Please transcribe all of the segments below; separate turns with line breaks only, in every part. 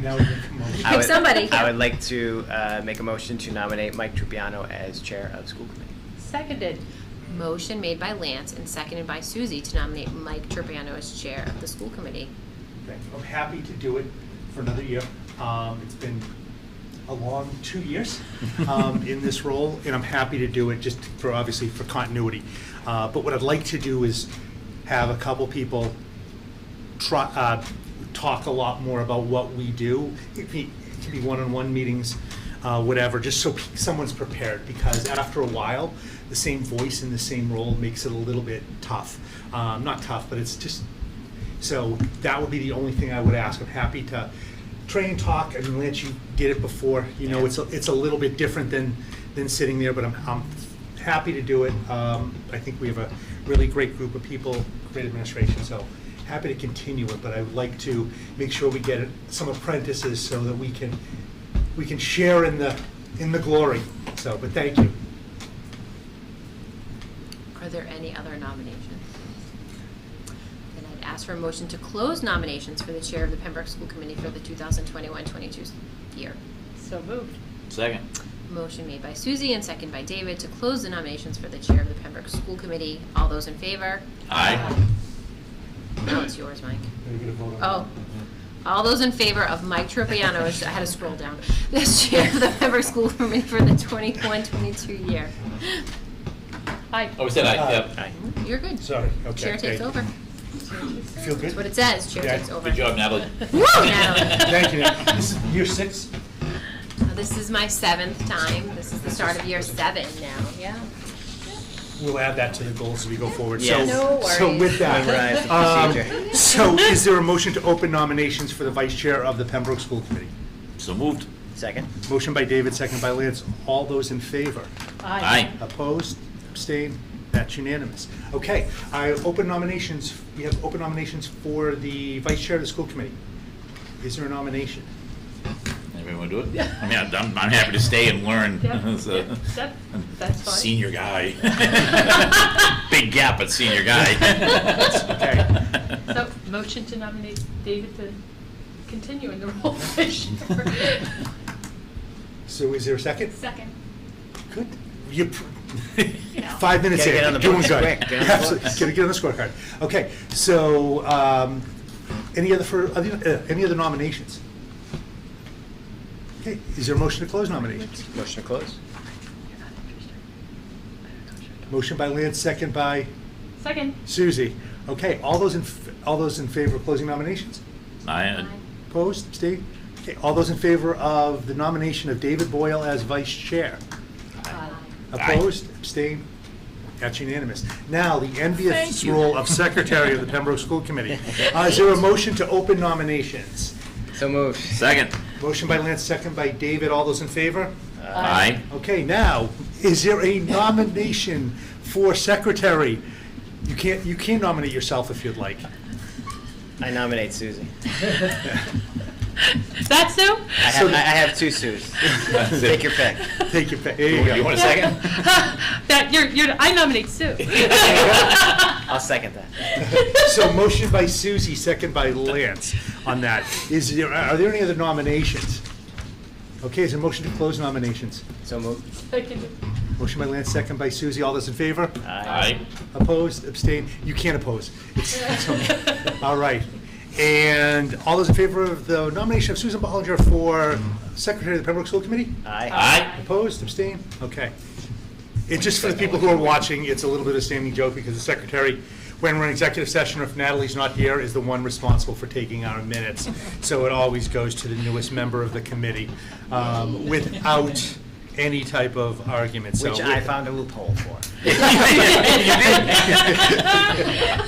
Now we can come over.
I would-
somebody.
I would like to uh, make a motion to nominate Mike Trupiano as chair of school committee.
Seconded. Motion made by Lance and seconded by Susie to nominate Mike Turbano as chair of the school committee.
Thank you. I'm happy to do it for another year. Um, It's been a long two years um, in this role, and I'm happy to do it just for, obviously, for continuity. Uh, But what I'd like to do is have a couple people try, uh, talk a lot more about what we do. It be- it can be one-on-one meetings, uh, whatever, just so pe- someone's prepared, because after a while, the same voice in the same role makes it a little bit tough. Um, Not tough, but it's just, so that would be the only thing I would ask. I'm happy to train, talk, I mean, Lance, you did it before, you know, it's, a- it's a little bit different than, than sitting there, but I'm, I'm happy to do it. Um, I think we have a really great group of people, great administration, so happy to continue it, but I would like to make sure we get some apprentices so that we can, we can share in the, in the glory, so, but thank you.
Are there any other nominations? Then I'd ask for a motion to close nominations for the chair of the Pembroke School Committee for the 2021-22 year.
So moved.
Second.
Motion made by Susie and second by David to close the nominations for the chair of the Pembroke School Committee. All those in favor?
Aye.
Now it's yours, Mike.
Are you gonna vote on that?
Oh, all those in favor of Mike Tropiano, I had to scroll down, as chair of the Pembroke School Committee for the 21-22 year.
Aye.
Oh, we said aye,
Aye.
yep.
Aye.
You're good.
Sorry, okay.
Chair
thank
takes
you.
over.
Feel good?
That's what it says, chair
Yeah.
takes over.
Good job, Natalie.
Woo, Natalie.
Thank you, Nat. This is year six?
Now, This is my seventh time. This is the start of year seven now, yeah.
We'll add that to the goals as we go forward.
Yes.
So,
No
so with that,
Memorize the
um,
procedure.
so is there a motion to open nominations for the vice chair of the Pembroke School Committee?
So moved.
Second?
Motion by David, second by Lance. All those in favor?
Aye.
Opposed? Abstained? That's unanimous. Okay, I open nominations, we have open nominations for the vice chair of the school committee. Is there a nomination?
Anybody want to do it? Yeah. I mean, I'm, I'm I'm happy to stay and learn.
Yep,
So-
yep, that- That's fine.
Senior guy. Big gap, but senior guy.
okay.
So, motion to nominate David to continue in the role of vice chair.
So is there a second?
Second.
Good. You, pr- five minutes
Gotta
here.
get on the
Doing
books
good.
quick, get on the
Absolutely.
books.
Gotta get on the scorecard. Okay, so, um, any other, for, other- uh, any other nominations? Okay, is there a motion to close nominations?
Motion to close?
Motion by Lance, second by
Second.
Susie. Okay, all those in, f- all those in favor of closing nominations?
I,
Opposed, abstained? Okay, all those in favor of the nomination of David Boyle as vice chair?
Aye.
Opposed, abstained, that's unanimous. Now, the envious role of secretary of the Pembroke School Committee. Uh, Is there a motion to open nominations?
So moved.
second.
Motion by Lance, second by David, all those in favor?
Aye.
Okay, now, is there a nomination for secretary? You can't, you can nominate yourself if you'd like.
I nominate Susie.
That Sue?
I have, I I have two Sues. Take your pick.
Take your, pick. there you go.
You want a second?
That, you're, you're, I nominate Sue.
I'll second that.
So motion by Susie, second by Lance on that. Is there, are there any other nominations? Okay, is there a motion to close nominations?
So moved.
Second.
Motion by Lance, second by Susie. All those in favor?
Aye.
Opposed, abstained? You can't oppose. It's- it's okay. All right. And all those in favor of the nomination of Susan Bollinger for Secretary of the Pembroke School Committee?
Aye.
Aye.
Opposed, abstained? Okay. And just for the people who are watching, it's a little bit of a standing joke because the secretary, when we're in executive session, or if Natalie's not here, is the one responsible for taking our minutes. So it always goes to the newest member of the committee um, without any type of argument, so.
Which I found a loophole for.
There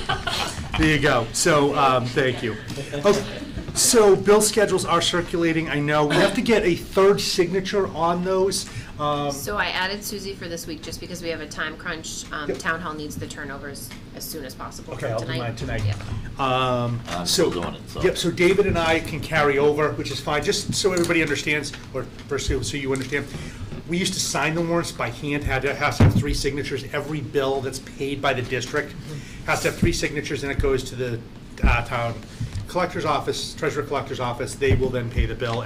you go. So, um, thank you. Oh, So bill schedules are circulating, I know. We have to get a third signature on those. Um,
So I added Susie for this week just because we have a time crunch. Um,
Yep.
Town Hall needs the turnovers as soon as possible for
Okay,
tonight.
I'll do mine tonight.
Yep.
Um,
I'm
so-
still doing it, so.
Yep, so David and I can carry over, which is fine, just so everybody understands, or first so so you understand. We used to sign the warrants by hand, had to, has to have three signatures. Every bill that's paid by the district has to have three signatures, and it goes to the uh, town collector's office, treasurer collector's office, they will then pay the bill